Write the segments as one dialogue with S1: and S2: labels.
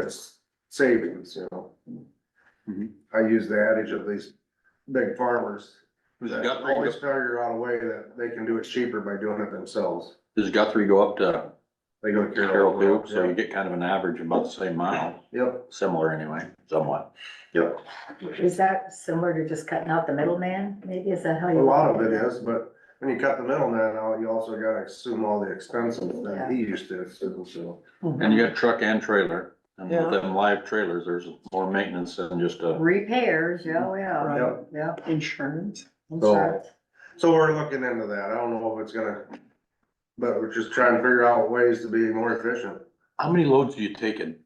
S1: Yes, savings, you know.
S2: Mhm.
S1: I use the adage of these big farmers.
S2: Does
S1: that
S2: Guthrie,
S1: Always figure out a way that they can do it cheaper by doing it themselves.
S2: does Guthrie go up to
S1: They go to
S2: Carroll
S1: Carroll.
S2: too? So you
S1: yeah.
S2: get kind of an average about the same mile,
S1: Yep,
S2: similar anyway, somewhat.
S1: yep.
S3: Is that similar to just cutting out the middleman? Maybe is that how
S1: A
S3: you?
S1: lot of it is, but when you cut the middleman out, you also gotta assume all the expenses that he used to assume, so.
S2: And you got truck and trailer, and with
S4: Yeah.
S2: them live trailers, there's more maintenance than just a,
S3: Oh. Repairs, yeah, oh, yeah,
S4: Right.
S1: Yep.
S3: yeah.
S4: Insurance.
S3: Insurance.
S1: So we're looking into that. I don't know if it's gonna, but we're just trying to figure out ways to be more efficient.
S2: how many loads do you take in?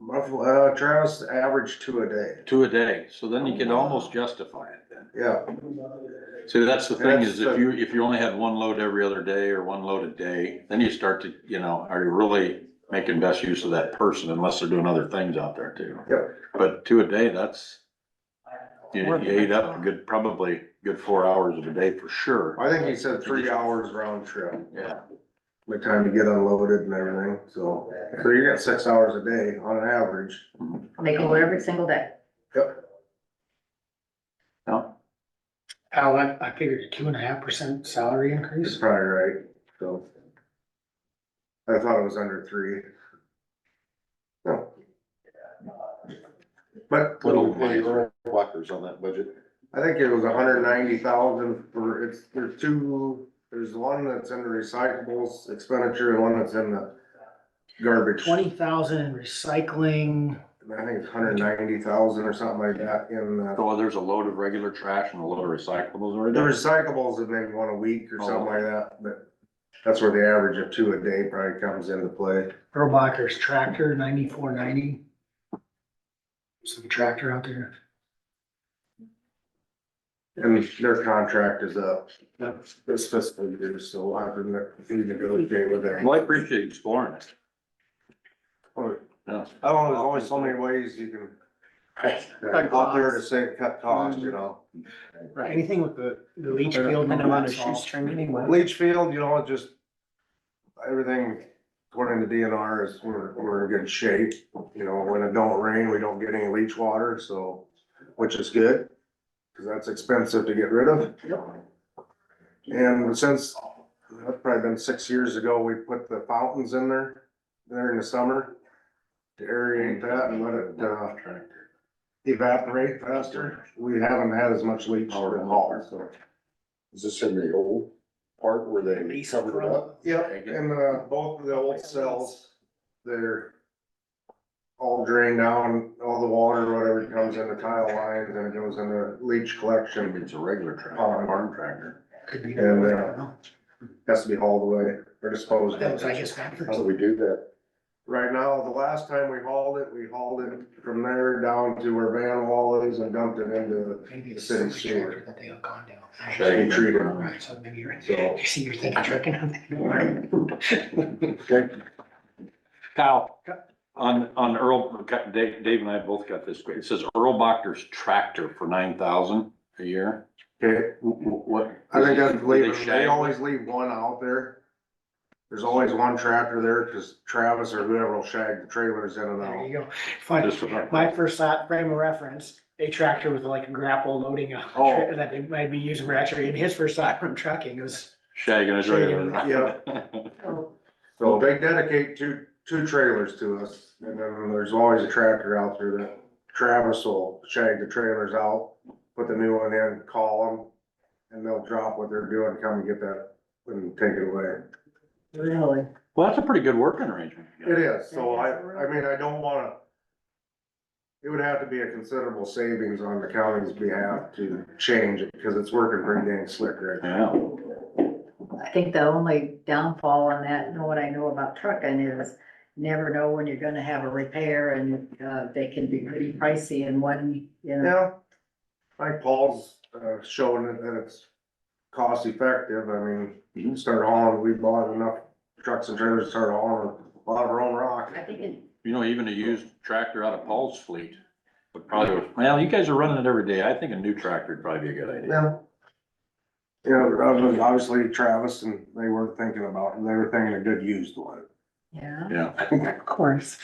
S1: Roughly, Uh, Travis averaged two a day.
S2: Two a day, so then you can almost justify it then.
S1: Yeah,
S2: See, that's the thing is
S1: That's
S2: if
S1: the-
S2: you, if you only had one load every other day or one load a day, then you start to, you know, are you really making best use of that person unless they're doing other things out there too?
S1: Yep.
S2: But two a day, that's, you you ate up a good, probably good four hours of a day for sure.
S1: I think he said three hours round trip,
S2: Yeah.
S1: the time to get unloaded and everything, so. So you got six hours a day on an average.
S3: They go every single day.
S1: Yep.
S2: No,
S5: Al, I, I figured a two and a half percent salary
S1: He's
S5: increase.
S1: probably right, so. I thought it was under three. No. But.
S2: little money, whackers on that budget.
S1: I think it was hundred ninety thousand for, it's, there's two, there's one that's in the recyclables expenditure and one that's in the garbage.
S5: Twenty thousand in recycling,
S1: And I think it's hundred ninety thousand or something like that in, uh,
S2: So there's a load of regular trash and a load of recyclables or
S1: the recyclables is maybe one a week or
S2: Oh.
S1: something like that, but that's where the average of two a day probably comes into play.
S5: Erlbacher's tractor, ninety-four ninety. Some tractor out there.
S1: And their contract is up
S5: Yep.
S1: this fiscal year, so we'll have to negotiate with them.
S2: Well, I appreciate you exploring it. Yeah.
S1: I don't know, there's always so many ways you can.
S5: Cut
S1: Out there to say, cut costs, you know.
S5: Right, anything with the, the leach
S1: I
S5: field.
S4: And
S5: and
S4: I'm
S5: all
S4: on a
S5: that stuff.
S4: shoestring anyway.
S1: Leach field, you know, it just, everything according to DNR is, we're, we're in good shape. You know, when it don't rain, we don't get any leach water, so, which is good, cause that's expensive to get rid of. And since, that's probably been six years ago, we put the fountains in there, there in the summer. To aerate that and let it, uh, evaporate faster. We haven't had as much leach at all, so.
S6: Is this in the old part where they
S5: Lease
S6: covered it up?
S1: Yep, and uh, both of the old cells, they're all drained down, all the water, whatever comes in the tile lines and it goes in the leach
S2: Should've
S1: collection,
S2: been a regular tractor, farm tractor.
S5: Could be.
S1: And, uh, has to be hauled away or disposed
S5: That was, I
S1: of.
S5: guess, backwards.
S1: Oh.
S6: How do we do that?
S1: Right now, the last time we hauled it, we hauled it from there down to where Van Wall is and dumped it into,
S5: Maybe it's
S1: Same
S5: the
S1: sewer.
S5: tractor that they have gone down.
S2: Shaggy.
S1: Treated.
S5: Right, so maybe you're,
S1: So-
S5: you see, you're thinking trucking out there.
S2: Kyle, on, on Earl, Dave, Dave and I both got this, it says Earl Bochter's tractor for nine thousand a year.
S1: okay?
S2: Wh- wh- What?
S1: I think that's
S2: Did
S1: leaving,
S2: shag
S1: they
S2: it?
S1: always leave one out there. There's always one tractor there, cause Travis or whoever will shag the trailers in and
S5: There
S1: out.
S5: you go. Fine.
S2: Just for-
S5: My first thought, frame of reference, a tractor with like a grapple loading a,
S1: Oh.
S5: that they might be using for actually, and his first thought from trucking was,
S2: Shagging is right.
S1: Yeah.
S3: Oh,
S1: So they dedicate two, two trailers to us, and then there's always a tractor out there that Travis will shag the trailers out, put the new one in, call them, and they'll drop what they're doing, come and get that, and take it away.
S3: Really?
S2: Well, that's a pretty good working arrangement.
S1: It is, so I, I mean, I don't wanna, it would have to be a considerable savings on the county's behalf to change it, because it's working pretty dang slick right now.
S2: Yeah.
S3: I think the only downfall on that, and what I know about trucking is never know when you're gonna have a repair and, uh, they can be pretty pricey in one, you know.
S1: Yeah, like Paul's, uh, showing it that it's cost effective, I mean, you can start hauling, we bought enough trucks and trailers to start hauling a lot of our own rock.
S3: I think it,
S2: You know, even a used tractor out of Paul's fleet would probably, well, you guys are running it every day. I think a new tractor would probably be a good idea.
S1: Yeah. Yeah, obvi- obviously Travis and they were thinking about, they were thinking a good used one.
S3: yeah.
S2: Yeah.
S4: Of course.